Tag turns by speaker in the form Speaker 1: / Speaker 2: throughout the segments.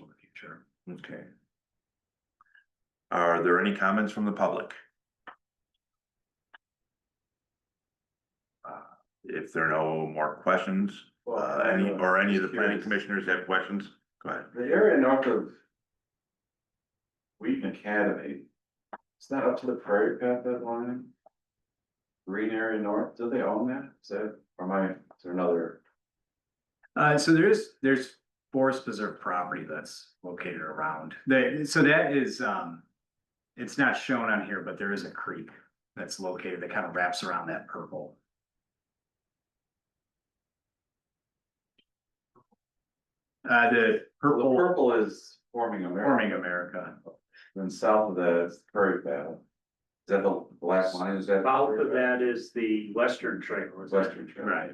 Speaker 1: in the future.
Speaker 2: Okay. Are there any comments from the public? Uh, If there are no more questions, uh, any, or any of the planning commissioners have questions, go ahead.
Speaker 3: The area north of. Wheaton Academy, it's not up to the prairie path that line? Green area north, do they own that? Is that, or am I, is there another?
Speaker 1: Uh, so there is, there's forest preserve property that's located around, that, so that is, um. It's not shown on here, but there is a creek that's located that kind of wraps around that purple. Uh, the
Speaker 3: The
Speaker 1: purple
Speaker 3: purple is forming America,
Speaker 1: forming America,
Speaker 3: then south of that is prairie path. Is that the black line, is that?
Speaker 4: South of that is the western trail. is it?
Speaker 3: Western Trail.
Speaker 1: right?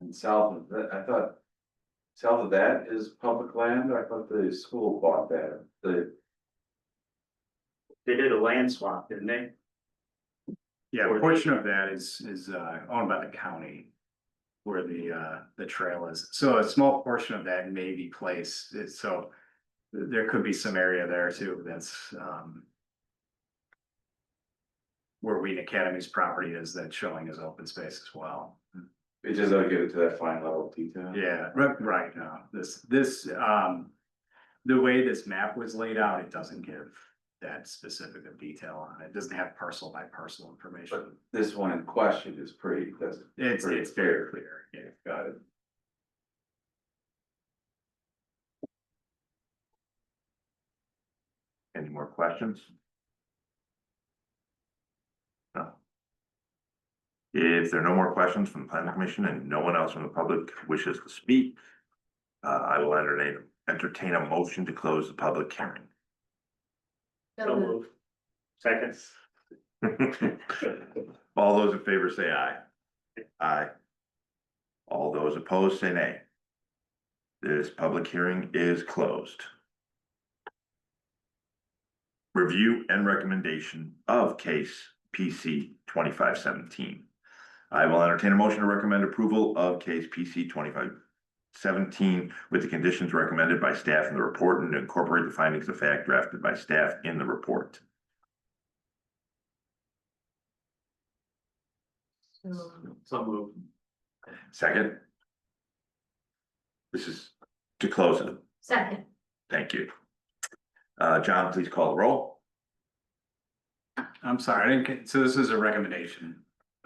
Speaker 3: And south of that, I thought. South of that is public land, I thought the school bought that, the,
Speaker 4: They did a land swap, didn't they?
Speaker 1: Yeah,
Speaker 4: Or
Speaker 1: a
Speaker 4: the-
Speaker 1: portion of that is, is, uh, owned by the county. Where the, uh, the trail is, so a small portion of that may be placed, it's- so. th- There could be some area there too, that's, um. Where Wheaton Academy's property is that's showing as open space as well.
Speaker 3: it just doesn't get into that fine level of detail.
Speaker 1: Yeah, right, right, no, this, this, um. The way this map was laid out, it doesn't give that specific of detail on it, It doesn't have parcel by parcel information.
Speaker 3: This one in question is pretty, that's
Speaker 1: It's,
Speaker 3: Pretty
Speaker 1: it's very clear, yeah.
Speaker 3: Got it.
Speaker 2: Any more questions? No. If there are no more questions from the planning commission and no one else from the public wishes to speak, uh, I will entertain, entertain a motion to close the public hearing.
Speaker 4: So move. Seconds.
Speaker 2: All those in favor say aye. Aye. All those opposed say nay. This public hearing is closed. Review and recommendation of case PC twenty-five seventeen. I will entertain a motion to recommend approval of case PC twenty-five seventeen with the conditions recommended by staff in the report and incorporate the findings of fact drafted by staff in the report.
Speaker 4: So move.
Speaker 2: Second. This is to close it.
Speaker 5: Second,
Speaker 2: Thank you. Uh, John, please call the roll.
Speaker 1: I'm sorry, I didn't get, so this is a recommendation.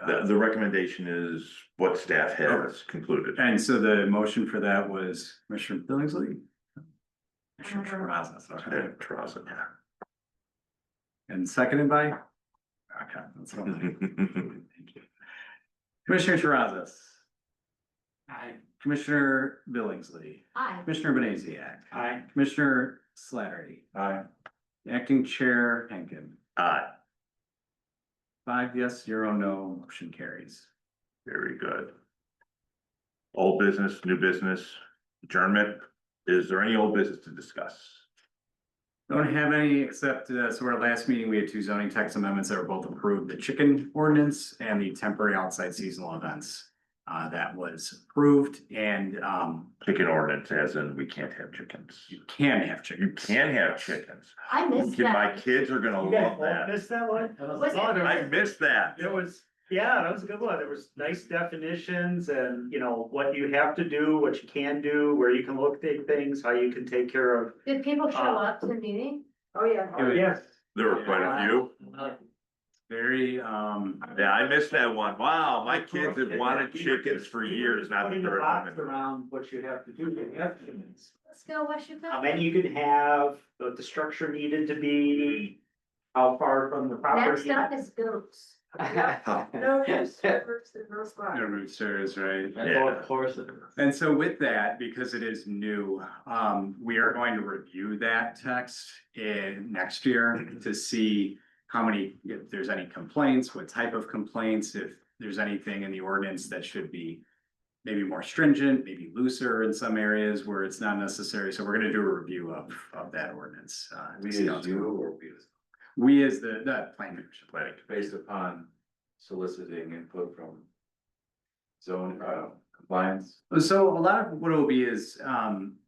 Speaker 2: The, the recommendation is what staff has concluded.
Speaker 1: Uh, And so the motion for that was Commissioner Billingsley? Commissioner
Speaker 5: Uh-huh.
Speaker 1: Perazza, sorry.
Speaker 2: Yeah, Trust it.
Speaker 1: And seconded by? Okay. that's what I'm
Speaker 2: Mm-hmm.
Speaker 1: thinking. Thank you. Commissioner Perazza. Aye. Commissioner Billingsley,
Speaker 5: aye.
Speaker 1: Commissioner Benaziac,
Speaker 4: Aye.
Speaker 1: Commissioner Slattery,
Speaker 3: Aye.
Speaker 1: Acting Chair Henkin.
Speaker 2: Aye,
Speaker 1: Five yes, zero no, motion carries.
Speaker 2: very good. Old business, new business, adjournment. Is there any old business to discuss?
Speaker 1: Don't have any, except, uh, so our last meeting, we had two zoning tax amendments that were both approved, the chicken ordinance and the temporary outside seasonal events. Uh, that was approved and, um,
Speaker 2: Chicken ordinance as in we can't have chickens.
Speaker 1: you can have
Speaker 2: You
Speaker 1: chickens.
Speaker 2: can have chickens.
Speaker 5: I missed
Speaker 2: My
Speaker 5: that.
Speaker 2: kids are gonna love that.
Speaker 4: Missed that one?
Speaker 5: Was it-
Speaker 2: I missed that.
Speaker 4: There was, yeah, that was a good one. There was nice definitions and, you know, what you have to do, what you can do, where you can locate things, how you can take care of.
Speaker 5: Did people show
Speaker 4: Uh,
Speaker 5: up to the meeting?
Speaker 4: Oh, yeah. Yes.
Speaker 2: There were quite a few.
Speaker 1: Very, um,
Speaker 2: Yeah, I missed that one. Wow, my kids have wanted chickens for years, not that
Speaker 4: Putting a
Speaker 2: they're.
Speaker 4: box
Speaker 2: a-
Speaker 4: around what you have to do, you have to.
Speaker 5: Let's go, West
Speaker 4: how
Speaker 5: Chicago.
Speaker 4: many you could have, what the structure needed to be, how far from the property.
Speaker 5: Next up is goats.
Speaker 6: No, there's servers and no spots.
Speaker 1: no roosters, right?
Speaker 2: Yeah,
Speaker 1: And so with that, because it is new, um, we are going to review that text in next year
Speaker 3: Mm-hmm.
Speaker 1: to see how many, if there's any complaints, what type of complaints, if there's anything in the ordinance that should be maybe more stringent, maybe looser in some areas where it's not necessary. So we're gonna do a review of, of that ordinance. uh, to
Speaker 3: We as
Speaker 1: see how it's
Speaker 3: you
Speaker 1: going.
Speaker 3: or we as,
Speaker 1: We as the, the planning commission,
Speaker 2: like,
Speaker 3: based upon soliciting input from. Zone, uh, compliance,
Speaker 1: So a lot of what it will be is, um,